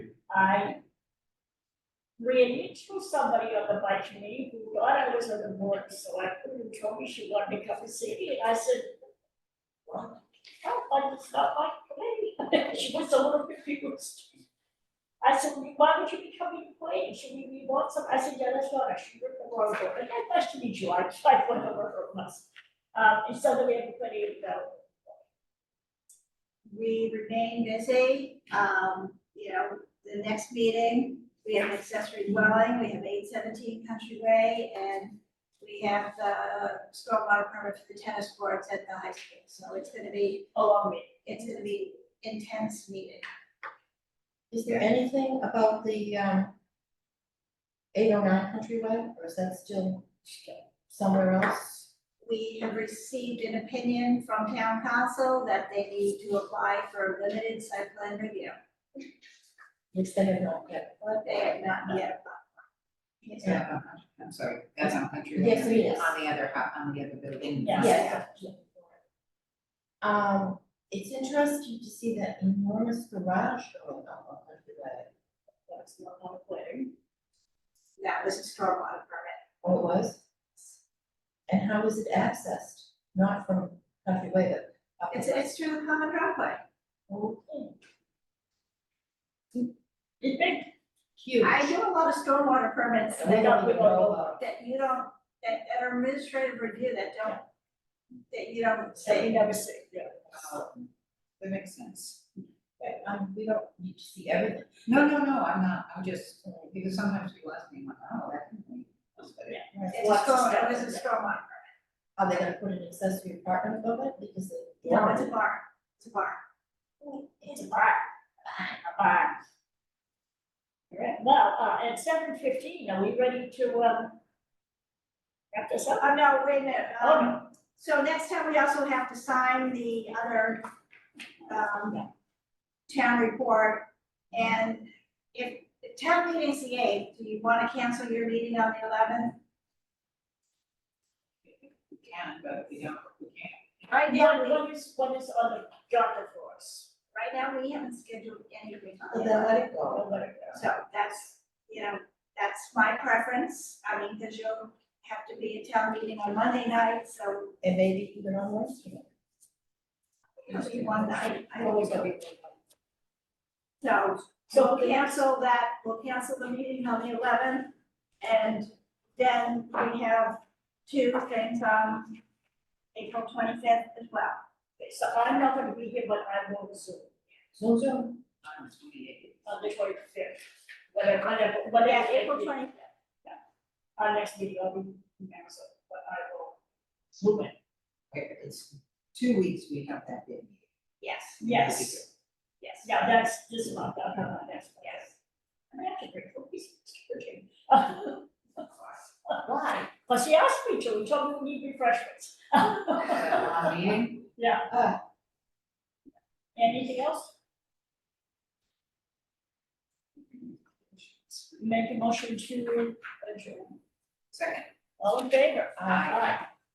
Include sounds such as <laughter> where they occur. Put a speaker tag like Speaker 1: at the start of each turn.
Speaker 1: I ran into somebody on the bike committee who thought I was on the board, so I put her and told me she wanted to come and see me, and I said, well, no, but it's not my committee. <laughs> She was a little confused. I said, "Well, why would you be coming late? Should we be want some? I said, yeah, that's right, I should rip the road over. And I nice to meet you, I tried one over her once. Um, and so then we have a committee to go.
Speaker 2: we remain busy, um, you know, the next meeting, we have accessory dwelling, we have eight seventeen Country Way, and we have the stormwater permit for the tennis courts at the high school, so it's gonna be,
Speaker 1: along with
Speaker 2: it's gonna be intense meeting.
Speaker 3: Is there anything about the um eight oh nine Countryway, or is that still somewhere else?
Speaker 2: We have received an opinion from town council that they need to apply for a limited site plan review,
Speaker 3: Which they have not yet.
Speaker 2: but they have not yet
Speaker 4: It's
Speaker 2: applied.
Speaker 4: not on- I'm sorry, that's on country. Way.
Speaker 3: Yes, it is.
Speaker 4: On the other, ho- on the other building.
Speaker 1: Yeah.
Speaker 3: Yes.
Speaker 1: <laughs>
Speaker 3: Um, it's interesting to see that enormous garage going up on Countryway.
Speaker 1: what's going on with planning.
Speaker 2: That was a stormwater permit,
Speaker 3: Oh, it was? And how is it accessed? Not from Countryway, but up.
Speaker 2: it's, it's through the common driveway.
Speaker 1: Okay.
Speaker 3: Huge.
Speaker 2: I do a lot of stormwater permits
Speaker 3: And they
Speaker 2: that
Speaker 3: don't even know uh, about it.
Speaker 2: that you don't, that, that are administrative review that don't, that you don't
Speaker 1: Say you
Speaker 2: say,
Speaker 1: never say, yeah.
Speaker 4: Oh, That makes sense.
Speaker 3: Right, um, we don't need to see everything.
Speaker 4: No, no, no, I'm not, I'm just, because sometimes people ask me, like, oh, that can be.
Speaker 2: it's a
Speaker 1: Lots of
Speaker 2: storm, it
Speaker 1: stuff.
Speaker 2: was a stormwater.
Speaker 3: Are they gonna put an accessory apartment above it because they?
Speaker 2: No, it's a barn, it's a barn.
Speaker 1: It's a bar. A bar. All right, well, uh, at seven fifteen, are we ready to, um, wrap this up?
Speaker 2: Oh, no, wait a minute,
Speaker 1: Oh,
Speaker 2: um, so next time we also have to sign the other, um, town report. And if, if town meeting's the eighth, do you wanna cancel your meeting on the eleventh?
Speaker 4: We can, but we don't, we can't.
Speaker 2: Right now,
Speaker 1: What-
Speaker 2: we,
Speaker 1: What is, what is on the agenda for us?
Speaker 2: right now, we haven't scheduled anything on the
Speaker 3: Well,
Speaker 2: 11th.
Speaker 3: Then let it go.
Speaker 1: We'll let it go.
Speaker 2: So that's, you know, that's my preference, I mean, because you'll have to be at town meeting on Monday night, so
Speaker 3: And maybe even on Wednesday.
Speaker 2: if you want, I, I
Speaker 1: I'm always gonna
Speaker 2: always go.
Speaker 1: be.
Speaker 2: So,
Speaker 1: So
Speaker 2: so
Speaker 1: we
Speaker 2: we'll
Speaker 1: have,
Speaker 2: cancel that, we'll cancel the meeting on the eleventh, and then we have two things on April twenty-fifth as well.
Speaker 1: so I'm not gonna be here, but I will Zoom
Speaker 3: So, so,
Speaker 4: On the 28th.
Speaker 1: on the twenty fifth. Whatever, whatever,
Speaker 2: But
Speaker 1: whatever.
Speaker 2: yeah, April twenty-fifth,
Speaker 1: Our next meeting, I'll be in Amazon, but I will Zoom in.
Speaker 4: Okay, It's two weeks we have that big meeting.
Speaker 2: yes,
Speaker 4: <laughs>
Speaker 1: Yes.
Speaker 2: yes.
Speaker 1: Yeah, that's this month, uh, uh, that's, yes. I mean, I have to bring cookies, it's cooking. <laughs> Why? Well, she asked me to, we told me we need refreshments.
Speaker 4: That long meeting,
Speaker 3: uh,
Speaker 1: Anything else? Make a motion to adjourn.
Speaker 4: second.
Speaker 1: All in favor?
Speaker 4: Aye.